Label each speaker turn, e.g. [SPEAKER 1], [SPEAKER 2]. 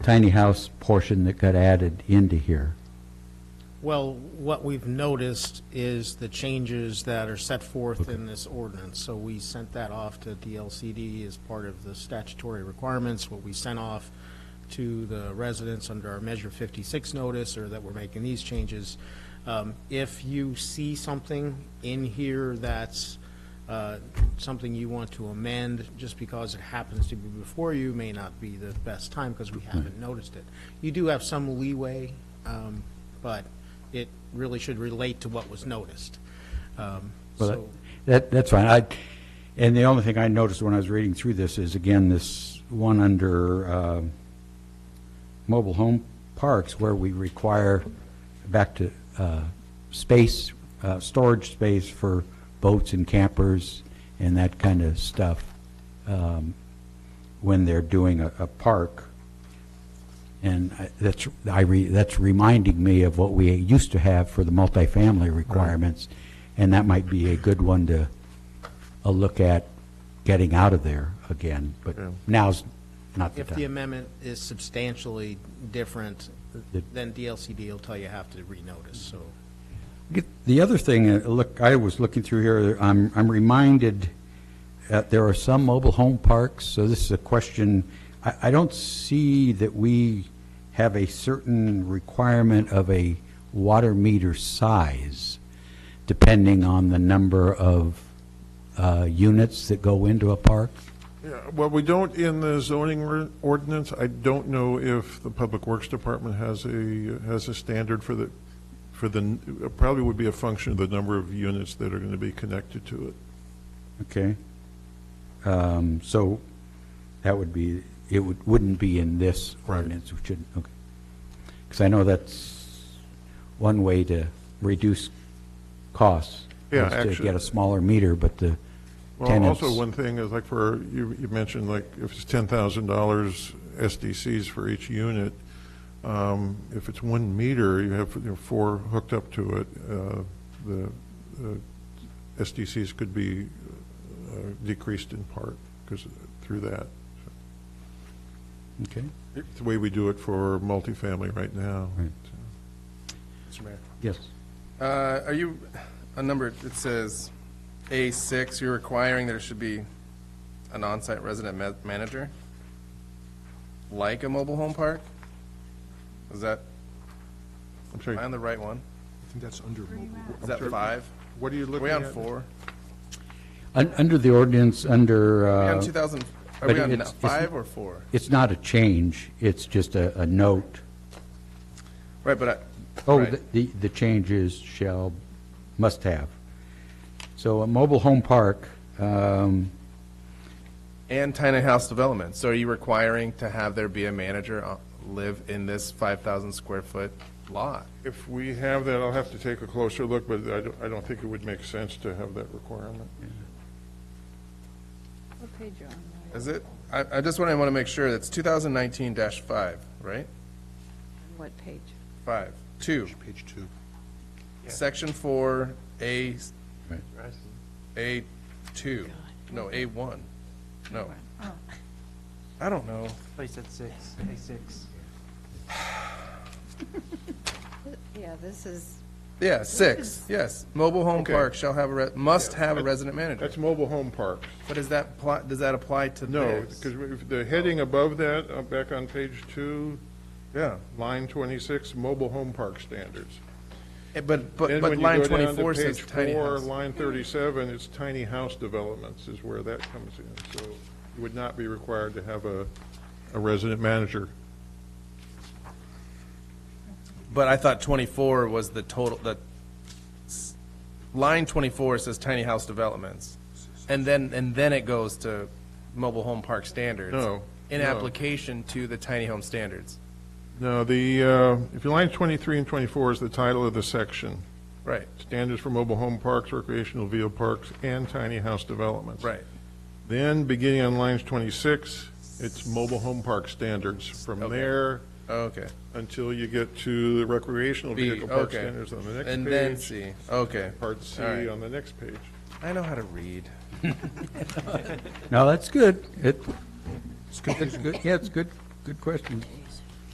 [SPEAKER 1] tiny house portion that got added into here.
[SPEAKER 2] Well, what we've noticed is the changes that are set forth in this ordinance. So we sent that off to DLCD as part of the statutory requirements, what we sent off to the residents under our Measure 56 notice, or that we're making these changes. Um, If you see something in here that's uh, something you want to amend, just because it happens to be before you, may not be the best time, because we haven't noticed it. You do have some leeway, um, but it really should relate to what was noticed. Um,
[SPEAKER 1] Well, that-
[SPEAKER 2] So,
[SPEAKER 1] That, that's fine. I, and the only thing I noticed when I was reading through this is, again, this one under uh, mobile home parks where we require, back to uh, space, uh, storage space for boats and campers and that kind of stuff um, when they're doing a, a park. And I- that's, I re, that's reminding me of what we used to have for the multifamily requirements, and that might be a good one to, a look at getting out of there again, but now's not the
[SPEAKER 2] if the
[SPEAKER 1] time.
[SPEAKER 2] amendment is substantially different, then DLCD will tell you have to renotice, so.
[SPEAKER 1] The other thing, uh, look, I was looking through here, I'm, I'm reminded that there are some mobile home parks, so this is a question, I, I don't see that we have a certain requirement of a water meter size, depending on the number of uh, units that go into a park.
[SPEAKER 3] Yeah, well, we don't in the zoning or- ordinance. I don't know if the Public Works Department has a, has a standard for the, for the, it probably would be a function of the number of units that are going to be connected to it.
[SPEAKER 1] Okay. Um, So that would be, it would, wouldn't be in this ordinance, which shouldn't, okay. Because I know that's one way to reduce costs.
[SPEAKER 3] Yeah,
[SPEAKER 1] is To
[SPEAKER 3] actually-
[SPEAKER 1] get a smaller meter, but the
[SPEAKER 3] Well,
[SPEAKER 1] tenants.
[SPEAKER 3] also one thing is like for, you, you mentioned like if it's ten thousand dollars SDCs for each unit, um, if it's one meter, you have, you know, four hooked up to it, uh, the, uh SDCs could be uh, decreased in part because through that.
[SPEAKER 1] Okay.
[SPEAKER 3] It's the way we do it for multifamily right now.
[SPEAKER 1] Right.
[SPEAKER 4] Mr. Mayor.
[SPEAKER 1] Yes.
[SPEAKER 4] Uh, Are you, a number, it says A6, you're requiring there should be an on-site resident ma- manager, like a mobile home park? Is that,
[SPEAKER 3] I'm
[SPEAKER 4] am I
[SPEAKER 3] sorry,
[SPEAKER 4] on the right one?
[SPEAKER 5] I think that's under mobile.
[SPEAKER 4] Is that five?
[SPEAKER 3] what are you
[SPEAKER 4] Are
[SPEAKER 3] looking
[SPEAKER 4] we on
[SPEAKER 3] at?
[SPEAKER 4] four?
[SPEAKER 1] Un- Under the ordinance, under,
[SPEAKER 4] Are we
[SPEAKER 1] uh,
[SPEAKER 4] on 2000, are
[SPEAKER 1] but
[SPEAKER 4] we on
[SPEAKER 1] it's-
[SPEAKER 4] five or four?
[SPEAKER 1] it's not a change, it's just a, a note.
[SPEAKER 4] Right, but I,
[SPEAKER 1] Oh,
[SPEAKER 4] Right.
[SPEAKER 1] the- the, the changes shall, must have. So a mobile home park, um,
[SPEAKER 4] and tiny house development, so are you requiring to have there be a manager uh, live in this 5,000 square foot lot?
[SPEAKER 3] If we have that, I'll have to take a closer look, but I don't, I don't think it would make sense to have that requirement.
[SPEAKER 6] What page are you on?
[SPEAKER 4] Is it, I, I just want, I want to make sure, that's 2019-5, right?
[SPEAKER 6] What page?
[SPEAKER 4] Five, two,
[SPEAKER 5] Page two.
[SPEAKER 4] section four, A,
[SPEAKER 1] Right.
[SPEAKER 4] A two, no, A one, no. I don't know,
[SPEAKER 7] Place at six, A six.
[SPEAKER 6] Yeah, this is,
[SPEAKER 4] yeah, six, yes, mobile home
[SPEAKER 3] Okay.
[SPEAKER 4] park shall have a, re- must have a resident manager,
[SPEAKER 3] That's mobile home parks.
[SPEAKER 4] but is that, pli- does that apply to
[SPEAKER 3] No,
[SPEAKER 4] this?
[SPEAKER 3] because the heading above that, uh, back on page two,
[SPEAKER 4] Yeah,
[SPEAKER 3] line 26, mobile home park standards.
[SPEAKER 4] Eh, but, but,
[SPEAKER 3] Then
[SPEAKER 4] but
[SPEAKER 3] when you
[SPEAKER 4] line
[SPEAKER 3] go down to
[SPEAKER 4] twenty-four says
[SPEAKER 3] page
[SPEAKER 4] tiny
[SPEAKER 3] four,
[SPEAKER 4] house.
[SPEAKER 3] Line 37, it's tiny house developments is where that comes in. So you would not be required to have a, a resident manager.
[SPEAKER 4] But I thought twenty-four was the total, the, s- line twenty-four says tiny house developments. And then, and then it goes to mobile home park standards.
[SPEAKER 3] No,
[SPEAKER 4] In
[SPEAKER 3] no.
[SPEAKER 4] application to the tiny home standards.
[SPEAKER 3] No, the, uh, if you line 23 and 24 is the title of the section,
[SPEAKER 4] Right,
[SPEAKER 3] standards for mobile home parks, recreational vehicle parks, and tiny house developments.
[SPEAKER 4] right.
[SPEAKER 3] Then, beginning on lines 26, it's mobile home park standards. From
[SPEAKER 4] Okay.
[SPEAKER 3] there
[SPEAKER 4] Okay.
[SPEAKER 3] until you get to the recreational
[SPEAKER 4] B,
[SPEAKER 3] vehicle park
[SPEAKER 4] okay.
[SPEAKER 3] standards on the next page.
[SPEAKER 4] And then C, okay.
[SPEAKER 3] Part C
[SPEAKER 4] All right.
[SPEAKER 3] on the next page.
[SPEAKER 4] I know how to read.
[SPEAKER 1] No, that's good. It, that's good, yeah, it's good, good question.